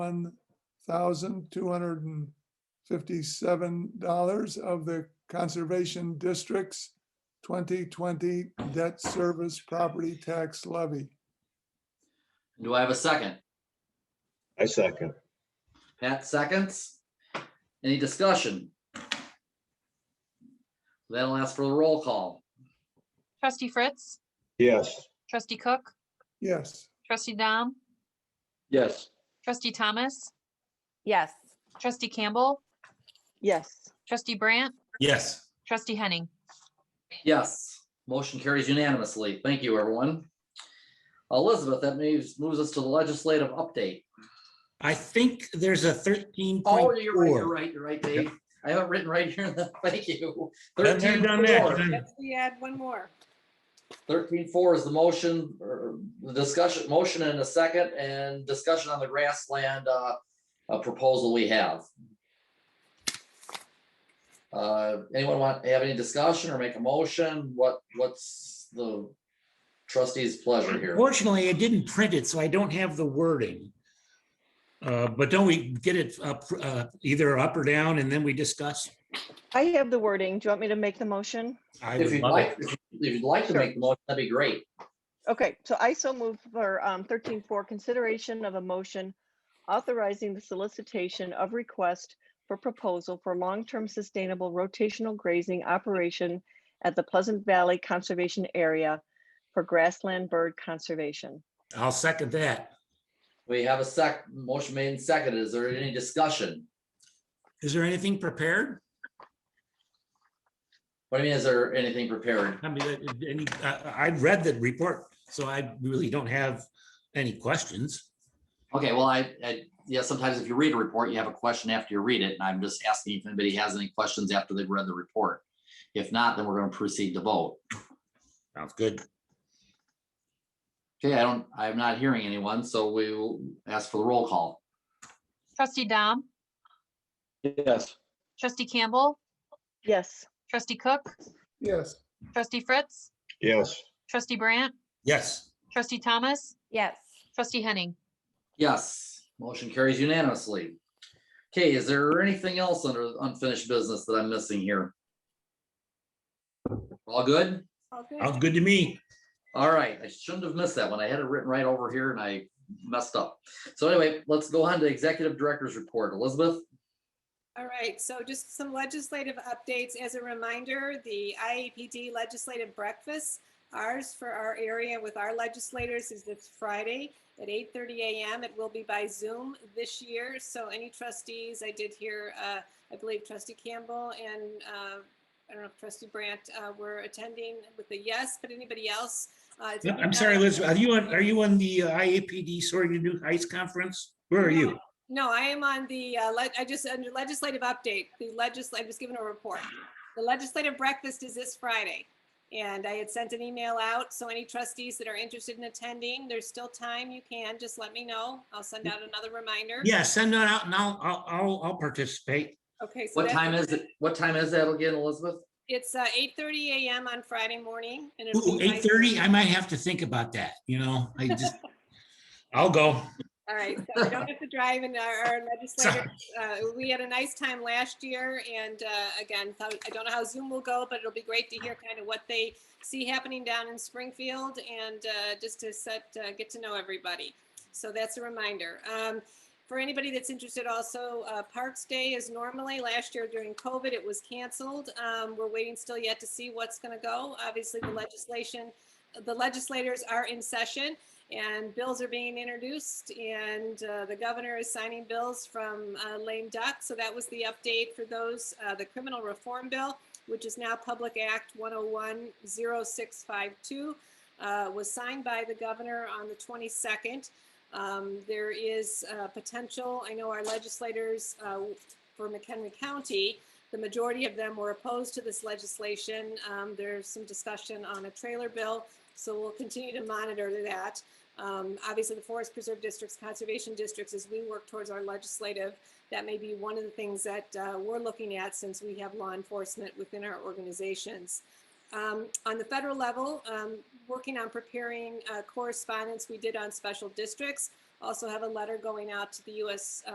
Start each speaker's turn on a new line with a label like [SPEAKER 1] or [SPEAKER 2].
[SPEAKER 1] one thousand two hundred and fifty-seven dollars of the Conservation District's twenty twenty debt service property tax levy.
[SPEAKER 2] Do I have a second?
[SPEAKER 3] I second.
[SPEAKER 2] Pat seconds. Any discussion? That'll ask for the roll call.
[SPEAKER 4] Trustee Fritz,
[SPEAKER 3] Yes.
[SPEAKER 4] trustee Cook,
[SPEAKER 1] Yes,
[SPEAKER 4] trustee Dom,
[SPEAKER 5] Yes.
[SPEAKER 4] trustee Thomas,
[SPEAKER 6] Yes.
[SPEAKER 4] trustee Campbell,
[SPEAKER 6] Yes.
[SPEAKER 4] trustee Brandt,
[SPEAKER 7] yes.
[SPEAKER 4] trustee Henning.
[SPEAKER 2] Yes, motion carries unanimously. Thank you, everyone. Elizabeth, that moves, moves us to the legislative update.
[SPEAKER 7] I think there's a thirteen
[SPEAKER 2] Oh,
[SPEAKER 7] point
[SPEAKER 2] you're right, you're
[SPEAKER 7] four.
[SPEAKER 2] right, you're right, Dave. I have it written right here. in the- Thank you.
[SPEAKER 7] Been there, done that. Done-
[SPEAKER 8] We add one more.
[SPEAKER 2] Thirteen four is the motion, or the discussion, motion and a second, and discussion on the grassland, uh, uh, proposal we have. Uh, anyone want, have any discussion or make a motion? What, what's the trustee's pleasure here?
[SPEAKER 7] Fortunately, I didn't print it, so I don't have the wording. Uh, but don't we get it up, uh, either up or down and then we discuss?
[SPEAKER 6] I have the wording. Do you want me to make the motion?
[SPEAKER 7] I
[SPEAKER 2] If
[SPEAKER 7] would
[SPEAKER 2] you'd
[SPEAKER 7] love
[SPEAKER 2] like,
[SPEAKER 7] it.
[SPEAKER 2] if you'd like to
[SPEAKER 6] Sure.
[SPEAKER 2] make the motion, that'd be great.
[SPEAKER 6] Okay, so I so move for um thirteen four, consideration of a motion authorizing the solicitation of request for proposal for long-term sustainable rotational grazing operation at the Pleasant Valley Conservation Area for grassland bird conservation.
[SPEAKER 7] I'll second that.
[SPEAKER 2] We have a sec, motion made and seconded. Is there any discussion?
[SPEAKER 7] Is there anything prepared?
[SPEAKER 2] What do you mean, is there anything prepared?
[SPEAKER 7] I mean, uh, any, I, I read the report, so I really don't have any questions.
[SPEAKER 2] Okay, well, I, I, yeah, sometimes if you read a report, you have a question after you read it, and I'm just asking if anybody has any questions after they've read the report. If not, then we're gonna proceed to vote.
[SPEAKER 7] Sounds good.
[SPEAKER 2] Okay, I don't, I'm not hearing anyone, so we will ask for the roll call.
[SPEAKER 4] Trustee Dom,
[SPEAKER 5] Yes.
[SPEAKER 4] trustee Campbell,
[SPEAKER 6] Yes,
[SPEAKER 4] trustee Cook,
[SPEAKER 1] yes.
[SPEAKER 4] trustee Fritz,
[SPEAKER 3] Yes.
[SPEAKER 4] trustee Brandt,
[SPEAKER 7] Yes.
[SPEAKER 4] trustee Thomas,
[SPEAKER 6] yes.
[SPEAKER 4] trustee Henning.
[SPEAKER 2] Yes, motion carries unanimously. Okay, is there anything else under unfinished business that I'm missing here? All good?
[SPEAKER 8] All good.
[SPEAKER 7] Sounds good to me.
[SPEAKER 2] All right, I shouldn't have missed that one. I had it written right over here and I messed up. So anyway, let's go on to executive director's report. Elizabeth?
[SPEAKER 8] All right, so just some legislative updates. As a reminder, the IAPD Legislative Breakfast, ours for our area with our legislators is this Friday at 8:30 a.m. It will be by Zoom this year, so any trustees, I did hear, uh, I believe trustee Campbell and uh, I don't know if trustee Brandt uh, were attending with a yes, but anybody else? uh, if
[SPEAKER 7] No,
[SPEAKER 8] you-
[SPEAKER 7] I'm sorry, Elizabeth, are you on, are you on the uh, IAPD Soaring to New Heights Conference? Where are you?
[SPEAKER 8] No, I am on the, uh, le- I just, under legislative update, the legislative, I was given a report. The legislative breakfast is this Friday. And I had sent an email out, so any trustees that are interested in attending, there's still time, you can, just let me know. I'll send out another reminder.
[SPEAKER 7] Yeah, send that out and I'll, I'll, I'll, I'll participate.
[SPEAKER 8] Okay. so
[SPEAKER 2] What
[SPEAKER 8] that's-
[SPEAKER 2] time is it? What time is that again, Elizabeth?
[SPEAKER 8] It's, uh, eight thirty AM on Friday morning. and it'll
[SPEAKER 7] Ooh,
[SPEAKER 8] be by-
[SPEAKER 7] eight thirty, I might have to think about that, you know, I just, I'll go.
[SPEAKER 8] All right, so we don't have to drive and our our legislators, uh, we had a nice time last year and uh, again, so I don't know how Zoom will go, but it'll be great to hear kind of what they see happening down in Springfield and uh, just to set, uh, get to know everybody. So that's a reminder. Um, For anybody that's interested also, uh, Parks Day is normally, last year during COVID, it was canceled. Um, We're waiting still yet to see what's going to go. Obviously, the legislation, the legislators are in session and bills are being introduced and uh, the governor is signing bills from uh, lame duck so that was the update for those uh, the criminal reform bill which is now public act 1010652 uh, was signed by the governor on the 22nd um, there is uh, potential i know our legislators uh, for mchenry county the majority of them were opposed to this legislation um, there's some discussion on a trailer bill so we'll continue to monitor that. Um, obviously, the forest preserve districts, conservation districts, as we work towards our legislative, that may be one of the things that uh, we're looking at since we have law enforcement within our organizations. Um, on the federal level, um, working on preparing uh, correspondence we did on special districts. also have a letter going out to the uh, US